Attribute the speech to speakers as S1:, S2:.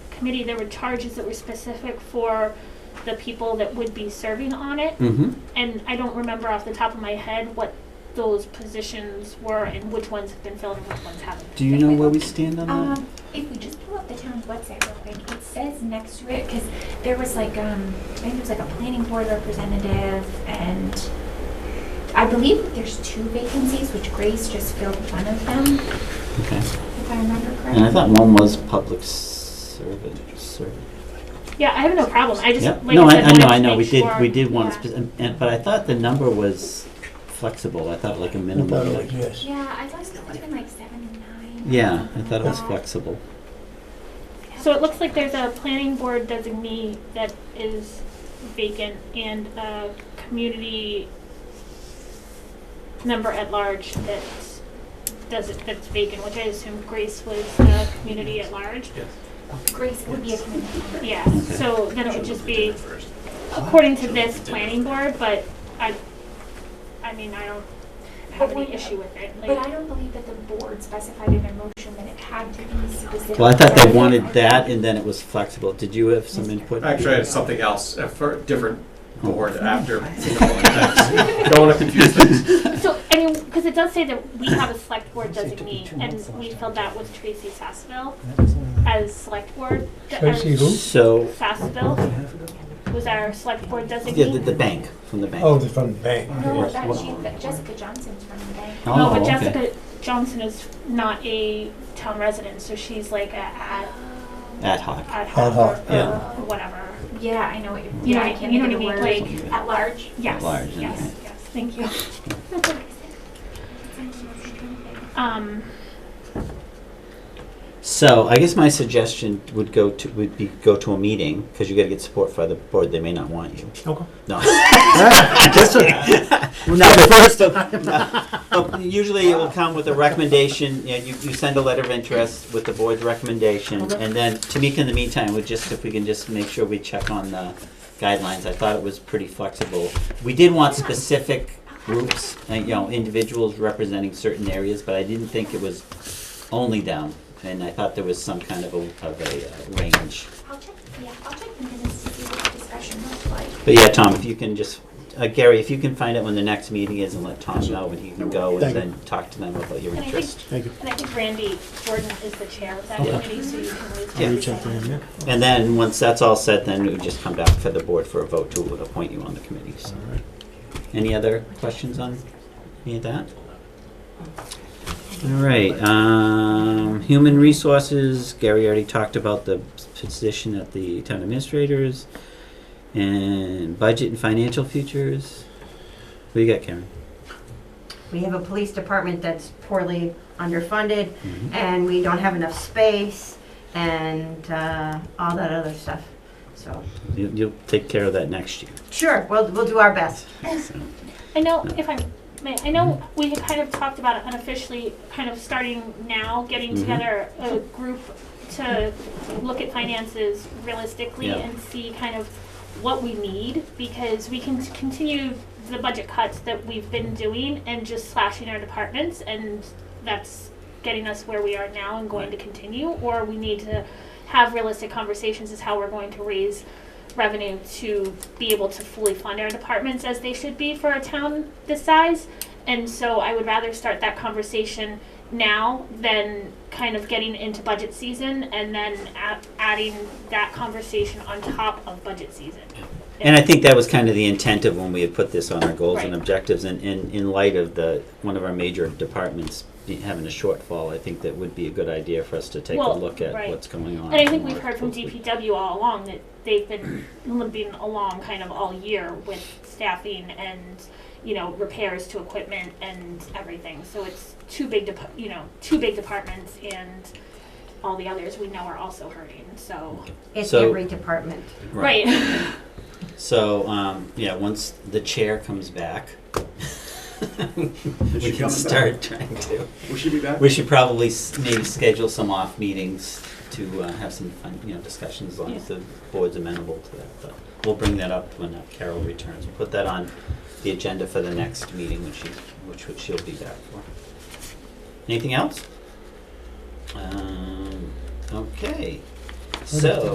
S1: committee, there were charges that were specific for the people that would be serving on it.
S2: Mm-hmm.
S1: And I don't remember off the top of my head what those positions were and which ones have been filled and which ones haven't.
S2: Do you know where we stand on that?
S3: Um, if we just pull up the town's website real quick, it says next to it, because there was like, um, I think there was like a planning board representative, and I believe there's two vacancies, which Grace just filled one of them,
S2: Okay.
S3: if I remember
S2: And I
S3: correctly.
S2: thought one was public servant, servant.
S1: Yeah, I have no problem. I just,
S2: Yeah.
S1: like
S2: No,
S1: I
S2: I,
S1: said,
S2: I know,
S1: wanted
S2: I
S1: to
S2: know,
S1: make
S2: we did,
S1: sure-
S2: we did one,
S1: Yeah.
S2: spec- and, and- but I thought the number was flexible. I thought like a
S4: I thought it
S2: minimum.
S4: was, yes.
S3: Yeah, I thought it was been like seven and nine.
S2: Yeah, I thought it was
S3: Uh,
S2: flexible.
S1: So it looks like there's a planning board designee that is vacant and a community member at large that does it, that's vacant, which I assume Grace was the community at large.
S3: Grace would be a community member.
S1: Yeah, so then it would just be according to this planning board, but I, I mean, I don't have
S3: But we-
S1: any issue with it.
S3: But I
S1: Like,
S3: don't believe that the board specified in their motion that it had to be specific.
S2: Well, I thought they wanted that and then it was flexible. Did you have some input? Oh.
S5: Actually, I had something else, uh, for a different board after. Don't want to confuse things.
S1: so, I mean, because it does say that we have a select board
S4: Actually, it took me
S1: designee,
S4: two months
S1: and
S4: last
S1: we
S4: time.
S1: filled that with Tracy Sassville
S2: uh,
S4: I
S1: as select board.
S4: Tracy who?
S2: So,
S1: Sassville was our select board
S2: yeah, the, the
S1: designee.
S2: bank, from the bank.
S4: Oh, they're from the bank.
S3: No,
S4: yes.
S3: that she, that Jessica Johnson's from the bank.
S2: Oh,
S1: No, but
S2: okay.
S1: Jessica Johnson is not a town resident, so she's like a ad,
S2: Ad hoc.
S1: ad
S4: Ad hoc,
S1: hoc or-
S2: yeah.
S1: or whatever.
S3: Yeah, I know what you're.
S1: You know
S3: yeah,
S1: what I-
S3: can't
S1: you know
S3: think
S1: what
S3: of
S1: I
S3: the
S1: mean,
S3: word.
S1: like-
S3: at large.
S1: Yes,
S2: large, okay.
S1: yes, yes, thank you. Um,
S2: So I guess my suggestion would go to, would be go to a meeting, because you gotta get support for the board, they may not want you.
S4: Okay.
S2: No. Just kidding. No, but first of- no. But Usually it will come with a recommendation, you, know, you you send a letter of interest with the board's recommendation, and then Tamika, in the meantime, would just, if we can just make sure we check on the guidelines, I thought it was pretty flexible. We did want specific groups, uh, you know, individuals representing certain areas, but I didn't think it was only them, and I thought there was some kind of a, of a uh, range.
S3: I'll check, yeah, I'll check the minutes to see what the discussion was like.
S2: But yeah, Tom, if you can just, uh, Gary, if you can find out when the next meeting is and let Tom know when he can go and
S4: Thank you.
S2: then talk to them about your
S1: And I think-
S2: interest.
S4: Thank you.
S1: and I think Randy Gordon is the chair of that
S2: Yeah.
S1: committee, so you can always.
S2: Yeah.
S4: I'll reach out to him, yeah.
S2: And then, once that's all set, then we just come back for the board for a vote to appoint you on the committee. So, Any other questions on any of that? All right, um, human resources, Gary already talked about the position at the town administrators. And budget and financial futures. What do you got, Karen?
S6: We have a police department that's poorly underfunded,
S2: Mm-hmm.
S6: and we don't have enough space, and uh, all that other stuff. So,
S2: You- You'll take care of that next year.
S6: sure, we'll, we'll do our best.
S1: I know, if I may, I know we had kind of talked about it unofficially, kind of starting now, getting
S2: Mhm.
S1: together a group to look at finances realistically
S2: Yeah.
S1: and see kind of what we need, because we can t- continue the budget cuts that we've been doing and just slashing our departments, and that's getting us where we are now and going to continue, or we need to have realistic conversations as how we're going to raise revenue to be able to fully fund our departments as they should be for a town this size. And so I would rather start that conversation now than kind of getting into budget season and then a- adding that conversation on top of budget season.
S2: And I think that was kind of the intent of when we had put this on our goals and
S1: Right.
S2: objectives, and, and in light of the, one of our major departments be- having a shortfall, I think that would be a good idea for us to take a
S1: Well,
S2: look at
S1: right.
S2: what's going on.
S1: And I think
S2: more
S1: we've heard from
S2: closely.
S1: DPW all along that they've been limping along kind of all year with staffing and, you know, repairs to equipment and everything. So it's two big, depa- you know, two big departments and all the others we know are also hurting, so.
S6: It's
S2: So-
S6: every department.
S1: Right.
S2: So, um, yeah, once the chair comes back,
S5: she
S2: we
S5: coming
S2: can
S5: back?
S2: start trying to.
S5: Will she be back?
S2: We should probably s- maybe schedule some off meetings to uh, have some fun, you know, discussions, as long as the board's amenable to that. But we'll bring that up when uh, Carol returns. We'll put that on the agenda for the next meeting, which she, which which she'll be back for. Anything else? Um, Okay, so.